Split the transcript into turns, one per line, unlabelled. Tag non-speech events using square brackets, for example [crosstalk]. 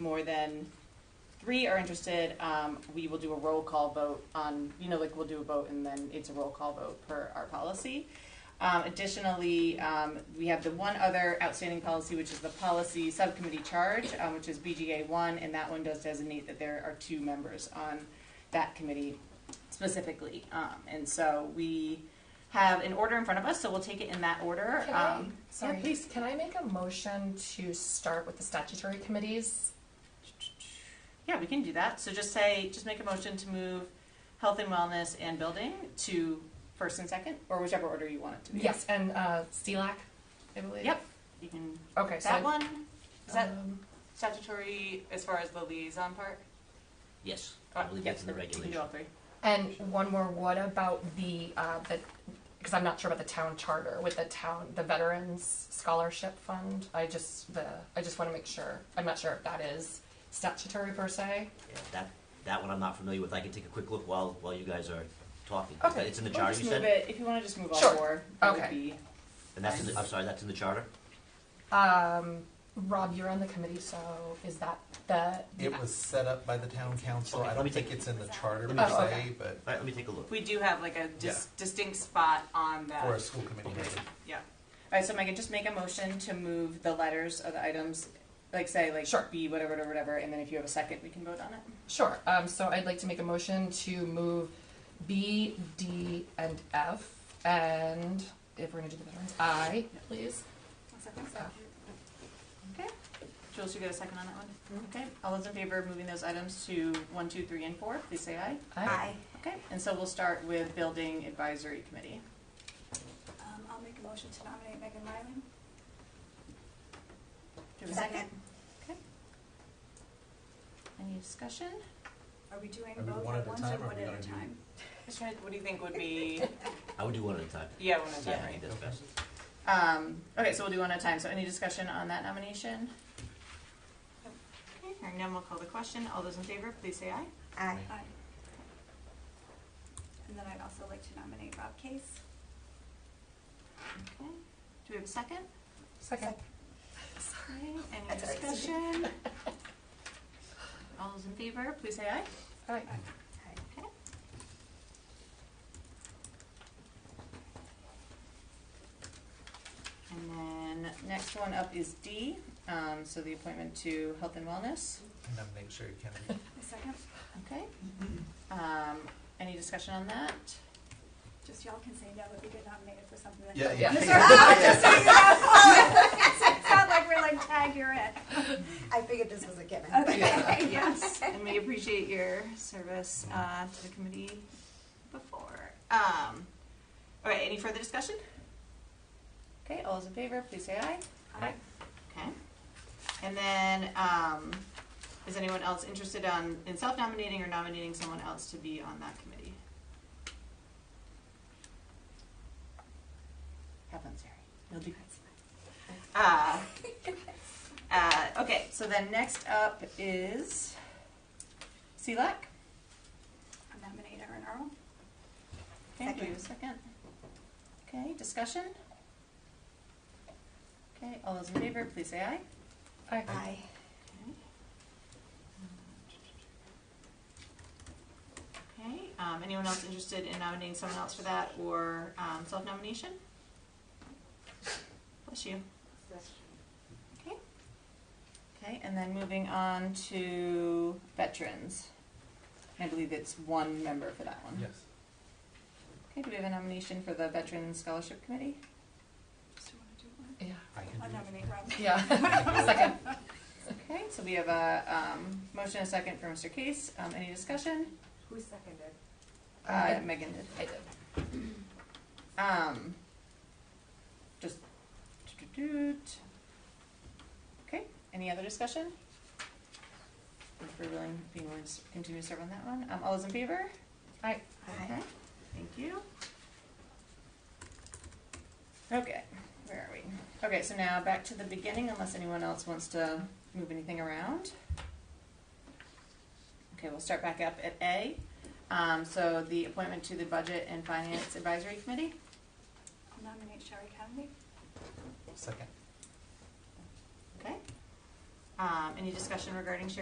more than three are interested, um, we will do a roll call vote on, you know, like we'll do a vote and then it's a roll call vote per our policy. Um, additionally, um, we have the one other outstanding policy, which is the policy subcommittee charge, um, which is BGA one, and that one does designate that there are two members on that committee specifically. Um, and so we have an order in front of us, so we'll take it in that order.
Can I-
Um,
Sorry,
yeah, please.
Can I make a motion to start with the statutory committees?
Yeah, we can do that. So just say, just make a motion to move health and wellness and building to first and second, or whichever order you want it to be.
Yes, and uh, CELAC, I believe.
Yep. You can,
Okay, so
that one, is that
um,
statutory as far as the liaison part?
Yes, I believe that's in the
You can do
regulation.
all three.
and one more. What about the uh, the? Because I'm not sure about the town charter with the town the veterans scholarship fund. I just the I just want to make sure. I'm not sure if that is statutory per se.
Yeah, That, that one I'm not familiar with, I can take a quick look while, while you guys are talking.
Okay.
It's in the
Or
charter,
just
you
move
said?
it, if you wanna just move all
Sure.
four, that would
Okay.
be,
And that's in the, I'm sorry, that's in the charter?
Um, Rob, you're on the committee, so is that the?
It was set up by the town council.
Okay,
I
let me
don't think
take- Oh,
it's in the charter
let
me
per
just-
se, but
All right, let me take a look.
we do have like a dis- distinct spot on that.
for a school committee
Okay.
meeting.
Yeah. Alright, so Megan, just make a motion to move the letters of the items, like say, like
Sure.
B, whatever, whatever, whatever, and then if you have a second, we can vote on it.
Sure, um, so I'd like to make a motion to move B, D, and F, and if we're gonna do the veterans, I, please.
Okay. Jules, you get a second on that one? Okay. All those in favor of moving those items to one, two, three, and four, please say aye.
I.
Okay, and so we'll start with Building Advisory Committee.
Um, I'll make a motion to nominate Megan Ryland.
Do we have a second? Okay. Any discussion?
Are we doing
Are we
both
one
at
at a
once or
time, or are
one
we
at
gonna
a
do-
time?
Just trying, what do you think would be,
I would do one at a time.
yeah, one at
Yeah,
a
I
time,
think that's best.
right? [laughs] Um, okay, so we'll do one at a time. So any discussion on that nomination? Okay, hearing none, we'll call the question. All those in favor, please say aye.
Aye.
Aye. And then I'd also like to nominate Rob Case.
Okay. Do we have a second?
Second.
Okay, Any
That's all right.
discussion? All those in favor, please say aye.
Aye.
Okay. And then next one up is D, um, so the appointment to Health and Wellness.
I Nominate Sherry Kennedy.
A second,
Okay. Um, any discussion on that?
just y'all can say no if you get nominated for something that. [laughs]
Yeah,
Yeah.
yeah.
Just so you know.
[laughs]
It's not like we're like, tag, you're it.
I figured this was a given.
Okay, [laughs] yes.
And we appreciate your service, uh, to the committee before. Um, all right, any further discussion? Okay, all those in favor, please say aye.
Aye.
Okay. And then, um, is anyone else interested on, in self-nominating or nominating someone else to be on that committee? Have fun, Sarah. You'll do [laughs] Uh, uh, okay, so then next up is E CLAC.
I'll Nominate Erin Earl.
Okay, do you have a second? Okay, discussion? Okay, all those in favor, please say aye.
Aye.
Aye.
Okay, um, anyone else interested in nominating someone else for that or, um, self-nomination? Bless you. Okay. Okay, and then moving on to veterans. I believe it's one member for that one.
Yes.
Okay, do we have a nomination for the Veterans Scholarship Committee?
Just wanna do it.
Yeah.
I can
I'll
do
nominate Rob.
Yeah, [laughs] second.
Okay, so we have a, um, motion and a second for Mr. Case. Um, any discussion?
Who seconded?
Uh,
I
Megan did.
I did.
Um, just. Okay, any other discussion? If we're willing, being willing to continue to serve on that one. Um, all those in favor?
Aye.
Thank you. Okay, where are we? Okay, so now back to the beginning unless anyone else wants to move anything around. Okay, we'll start back up at A. Um, so the appointment to the Budget and Finance Advisory Committee.
I'll nominate Sherry Kennedy.
Second.
Okay. Um, any discussion regarding shared